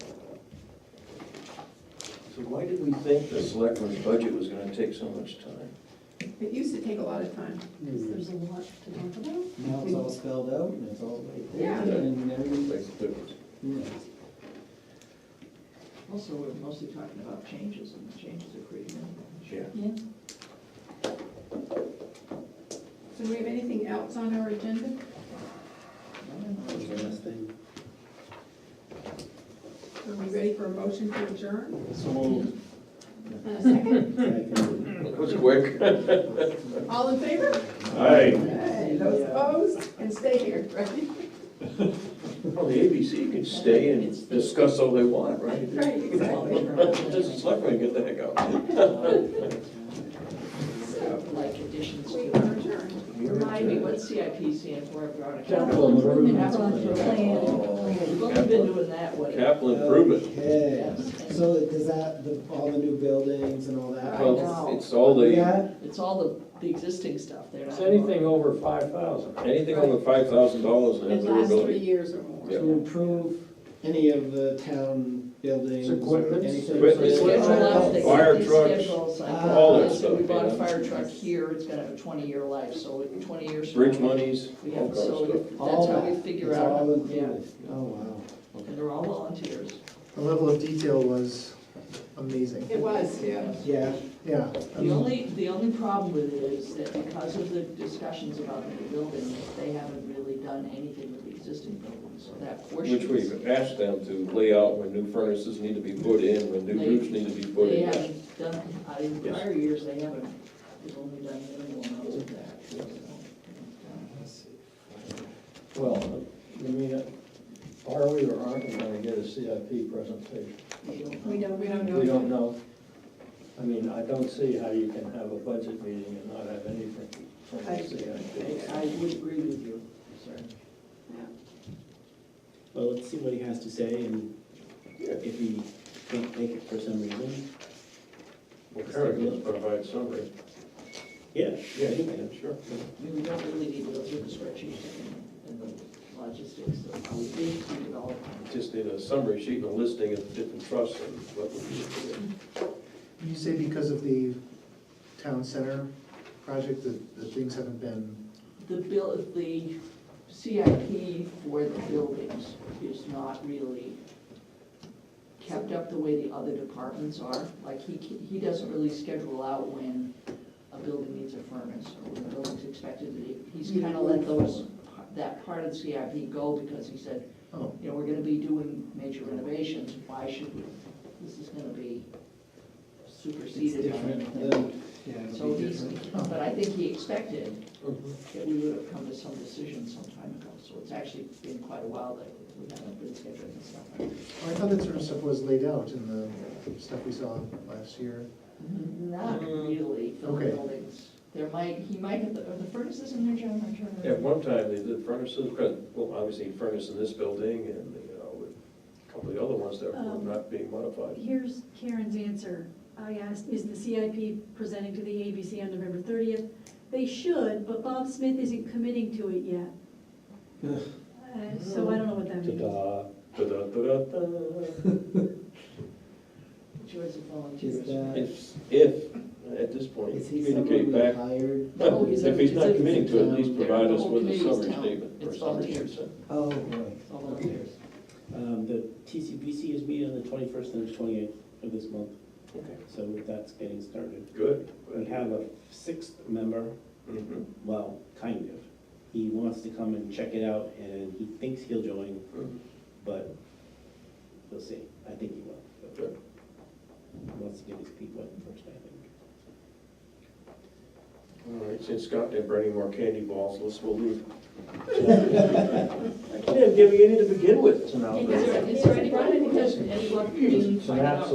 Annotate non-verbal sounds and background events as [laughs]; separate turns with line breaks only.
See, why did we think the selectmen's budget was gonna take so much time?
It used to take a lot of time.
Because there's a lot to talk about.
Now it's all spelled out and it's all right there
Yeah.
and everything's,
Makes a difference.
yeah.
Also, we're mostly talking about changes, and the changes are creating. new
Yeah.
Yeah.
So do we have anything else on our agenda?
ones.
Last thing.
Are we ready for a motion to adjourn?
So
And a second?
Second.
That was quick.
All in favor?
Aye.
Hey, Those
Yeah.
opposed? And stay here, right?
Well, the ABC can stay and discuss all they want, right?
Right, exactly.
Just the selectmen get the heck out.
So,
Like additions
we
to,
are adjourned.
remind me, what's CIP stand for, I brought it.
Capital improvement
We've only been doing that way.
Capital improvement.
Okay, so does that, the, all the new buildings and all that?
Well, know.
Well, It's all the,
Yeah,
It's all the, the existing stuff there.
It's anything over five thousand.
anything over five thousand dollars and
It
have
lasts three
durability.
years or more.
Yeah.
to improve any of the town buildings,
It's equipment.
anything.
Equipment.
Schedule out the-
Fire
the
trucks,
schedules, like
all
that
this,
stuff,
We bought
yeah.
a fire truck here, it's gonna have a twenty-year life, so in twenty years. from
Bridge
now,
monies,
We
all
have,
kinds of
so
stuff.
that's
All
how we
that.
figure
It's
out.
all
yeah.
included. Oh, wow.
And they're all volunteers.
The level of detail was amazing.
It was, yeah.
Yeah,
Yeah. I
The
mean,
only, the only problem with it is that because of the discussions about the new building, they haven't really done anything with the existing building, so that portion.
Which
is-
we've asked them to lay out when new furnaces need to be put in, when new roofs need to be put
They
in.
haven't done, I- in
Yes.
prior years, they haven't, they've only done minimal amounts of that. so.
Well, I mean, are we or aren't we gonna get a CIP presentation?
They don't-
We don't, we don't know.
We
yet.
don't know. I mean, I don't see how you can have a budget meeting and not have anything from
I,
the CIP.
I- I would agree with you, sir.
Well, let's see what he has to say, and if he can't make it for some reason,
Well, Karen can provide summary.
yeah,
Yeah,
yeah, he can.
sure.
I mean, we don't really need to go through the spreadsheet and and the logistics of how we think we develop.
Just need a summary sheet and a listing of different trusts and what we
Mm-hmm.
You say because of the town center project, that, that things haven't been,
The bill, the CIP for the buildings is not really kept up the way the other departments are. Like, he, he doesn't really schedule out when a building needs a furnace or when a building's expected to be. He's kind of let those, that part of the CIP go because he said,
oh,
you know, we're gonna be doing major renovations, why should we? This is gonna be
it's
superseded by
different
anything.
than, yeah, it'll
So
be
he's,
different.
but I think he expected
Mhm.
that we would have come to some decision some time ago, so it's actually been quite a while that we haven't been scheduling this stuff.
I thought that sort of stuff was laid out in the stuff we saw last year.
Mm-hmm.
Not really for the
Okay.
buildings. There might, he might have, the are the furnaces in there, John, I'm trying to.
At one time, they did furnaces, but, well, obviously furnace in this building and, you know, with a couple of the other ones that were
Um,
not being modified.
Here's Karen's answer. I asked, is the CIP presenting to the ABC on November thirtieth? They should, but Bob Smith isn't committing to it yet. Uh, So I don't know what that means.
Ta-da.
Da-da-da-da-da.
Joys of volunteers.
Is that,
If, if, at this point,
is he someone
communicate
we
back.
hired? Oh,
No, he's a-
If he's
it's
not
a-
committing to it, at least
it's a-
provide
the
us
whole
with a
committee's
summary
town.
statement or
It's
summary
volunteers.
sheet.
Oh, boy.
It's all volunteers.
Um, the TCBC is meeting on the twenty-first and the twenty-eighth of this month,
Okay.
so that's getting started.
Good.
We have a sixth member,
Mhm.
well, kind of. He wants to come and check it out, and he thinks he'll join,
Mhm.
but we'll see. I think he will. but
Good.
He wants to get his feet wet first, I think.
All right, since Scott didn't bring any more candy balls, let's, we'll [laughs] leave. I can't give you any to begin with.
It's an outrage.
Is there, is there anyone, any, any,
It's an absolute